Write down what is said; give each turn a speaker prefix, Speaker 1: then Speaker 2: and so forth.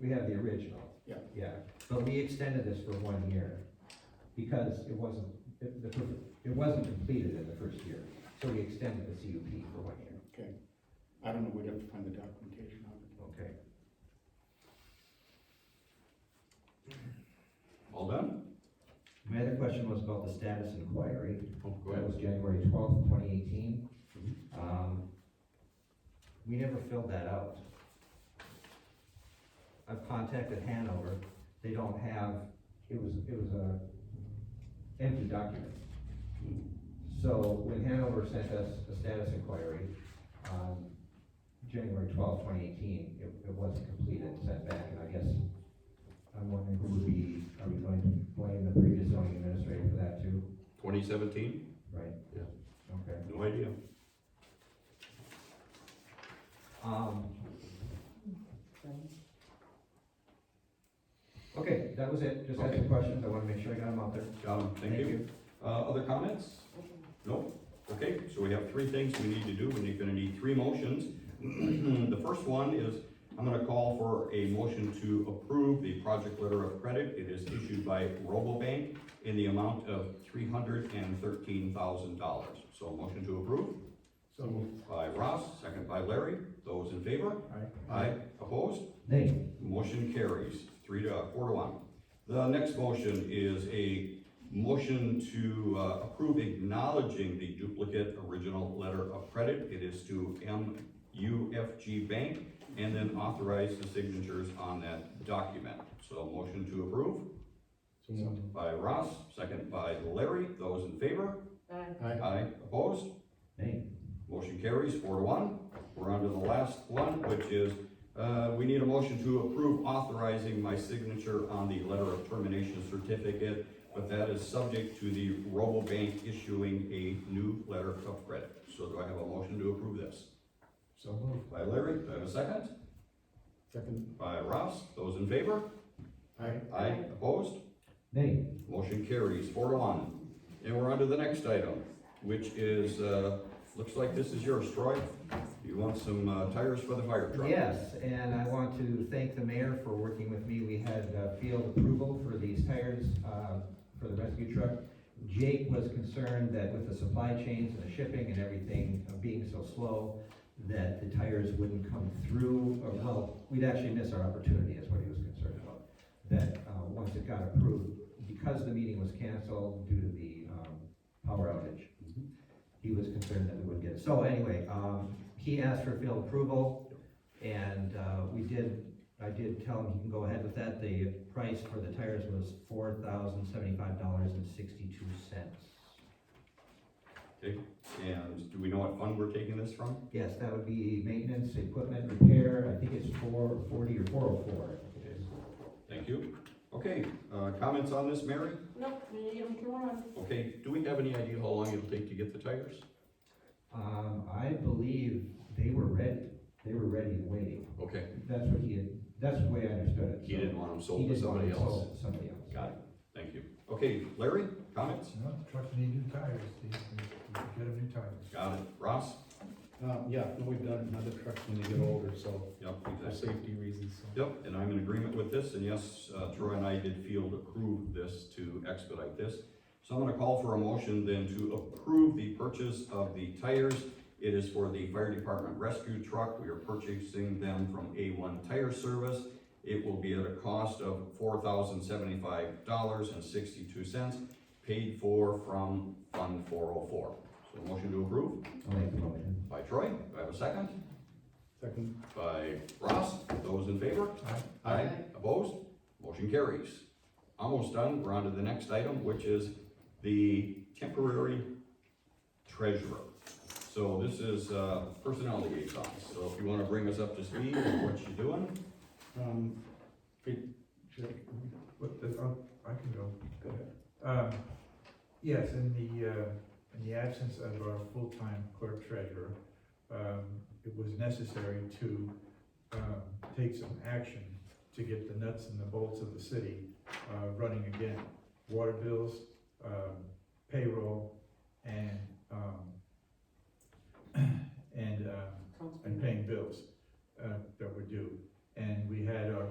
Speaker 1: We have the original.
Speaker 2: Yeah.
Speaker 1: Yeah, but we extended this for one year because it wasn't, it, the, fir- it wasn't completed in the first year. So we extended the CUP for one year,
Speaker 2: Okay. I don't know, we'd have to find the documentation on it.
Speaker 1: okay?
Speaker 3: All done?
Speaker 1: My other question was about the status inquiry.
Speaker 3: Oh, go
Speaker 1: That
Speaker 3: ahead.
Speaker 1: was January twelfth, twenty eighteen. Um,
Speaker 3: Mhm.
Speaker 1: We never filled that out. I've contacted Hanover, they don't have, it was, it was a empty document. So when Hanover sent us a status inquiry on January twelfth, twenty eighteen, it, it wasn't completed, sent back, and I guess I'm wondering who would be, are we going to blame the previous zoning administrator for that too?
Speaker 3: Twenty seventeen?
Speaker 1: Right?
Speaker 3: Yeah.
Speaker 1: Okay.
Speaker 3: No idea.
Speaker 1: Um. Okay, that was it, just had some
Speaker 3: Okay.
Speaker 1: questions, I wanna make sure I got them out there.
Speaker 3: Um, thank you. Uh, other comments? No? Okay, so we have three things we need to do, and you're gonna need three motions. The first one is, I'm gonna call for a motion to approve the project letter of credit. It is issued by Robobank in the amount of three hundred and thirteen thousand dollars. So a motion to approve
Speaker 2: So moved.
Speaker 3: by Ross, second by Larry. Those in favor?
Speaker 2: Aye.
Speaker 3: Aye. Opposed?
Speaker 1: Nate,
Speaker 3: Motion carries, three to, uh, four to one. The next motion is a motion to uh, approve acknowledging the duplicate original letter of credit. It is to MUFG Bank, and then authorize the signatures on that document. So motion to approve
Speaker 2: So moved.
Speaker 3: by Ross, second by Larry. Those in favor?
Speaker 4: Aye.
Speaker 2: Aye.
Speaker 3: Aye. Opposed?
Speaker 1: Nate,
Speaker 3: Motion carries four to one. We're on to the last one, which is, uh, we need a motion to approve authorizing my signature on the letter of termination certificate, but that is subject to the Robobank issuing a new letter of credit. So do I have a motion to approve this?
Speaker 2: So moved.
Speaker 3: By Larry, do I have a second?
Speaker 2: Second.
Speaker 3: By Ross, those in favor?
Speaker 2: Aye.
Speaker 3: Aye, opposed?
Speaker 1: Nate,
Speaker 3: Motion carries four to one. And we're on to the next item, which is, uh, looks like this is yours, Troy. You want some, uh, tires for the fire truck?
Speaker 1: yes, and I want to thank the mayor for working with me, we had uh, field approval for these tires, uh, for the rescue truck. Jake was concerned that with the supply chains and the shipping and everything uh, being so slow, that the tires wouldn't come through, or well, we'd actually miss our opportunity, is what he was concerned about. That, uh, once it got approved, because the meeting was canceled due to the, um, power outage, he was concerned that we would get, so anyway, um, he asked for field approval, and, uh, we did, I did tell him he can go ahead with that, the price for the tires was four thousand seventy-five dollars and sixty-two cents.
Speaker 3: And do we know what fund we're taking this from?
Speaker 1: Yes, that would be maintenance, equipment, repair, I think it's four forty or four oh four.
Speaker 3: Thank you. Okay, uh, comments on this, Mary?
Speaker 4: Nope, we need them to run.
Speaker 3: Okay, do we have any idea how long it'll take to get the tires?
Speaker 1: Um, I believe they were ready, they were ready and waiting,
Speaker 3: Okay,
Speaker 1: that's what he had, that's the way I understood it.
Speaker 3: he didn't want them
Speaker 1: So
Speaker 3: sold to
Speaker 1: didn't want it
Speaker 3: somebody else.
Speaker 1: sold to Somebody else.
Speaker 3: Got it, thank you. Okay, Larry, comments?
Speaker 5: No, the trucks need new tires, they, get them new tires.
Speaker 3: Got it. Ross?
Speaker 2: Um, yeah, no, we've done another truck when they get older, so
Speaker 3: Yep,
Speaker 2: for
Speaker 3: exactly.
Speaker 2: safety reasons, so.
Speaker 3: Yep, and I'm in agreement with this, and yes, uh, Troy and I did field approve this to expedite this. So I'm gonna call for a motion then to approve the purchase of the tires. It is for the fire department rescue truck. We are purchasing them from A1 Tire Service. It will be at a cost of four thousand seventy-five dollars and sixty-two cents, paid for from Fund four oh four. So motion to approve
Speaker 1: I'll make the motion.
Speaker 3: by Troy. Do I have a second?
Speaker 2: Second.
Speaker 3: By Ross. Those in favor? Aye. Opposed? Motion carries. Almost done, we're on to the next item, which is the temporary treasurer. So this is uh, personnel liaison, so if you wanna bring us up to speed on what you're doing,
Speaker 2: Um, fit- check.
Speaker 5: But, the- I'll- I can go.
Speaker 2: Go ahead.
Speaker 5: Um, yes, in the, uh, in the absence of our full-time clerk treasurer, um, it was necessary to, um, take some action to get the nuts and the bolts of the city, uh, running again. Water bills, um, payroll, and, um, and, um, and paying bills, uh, that were due. And we had our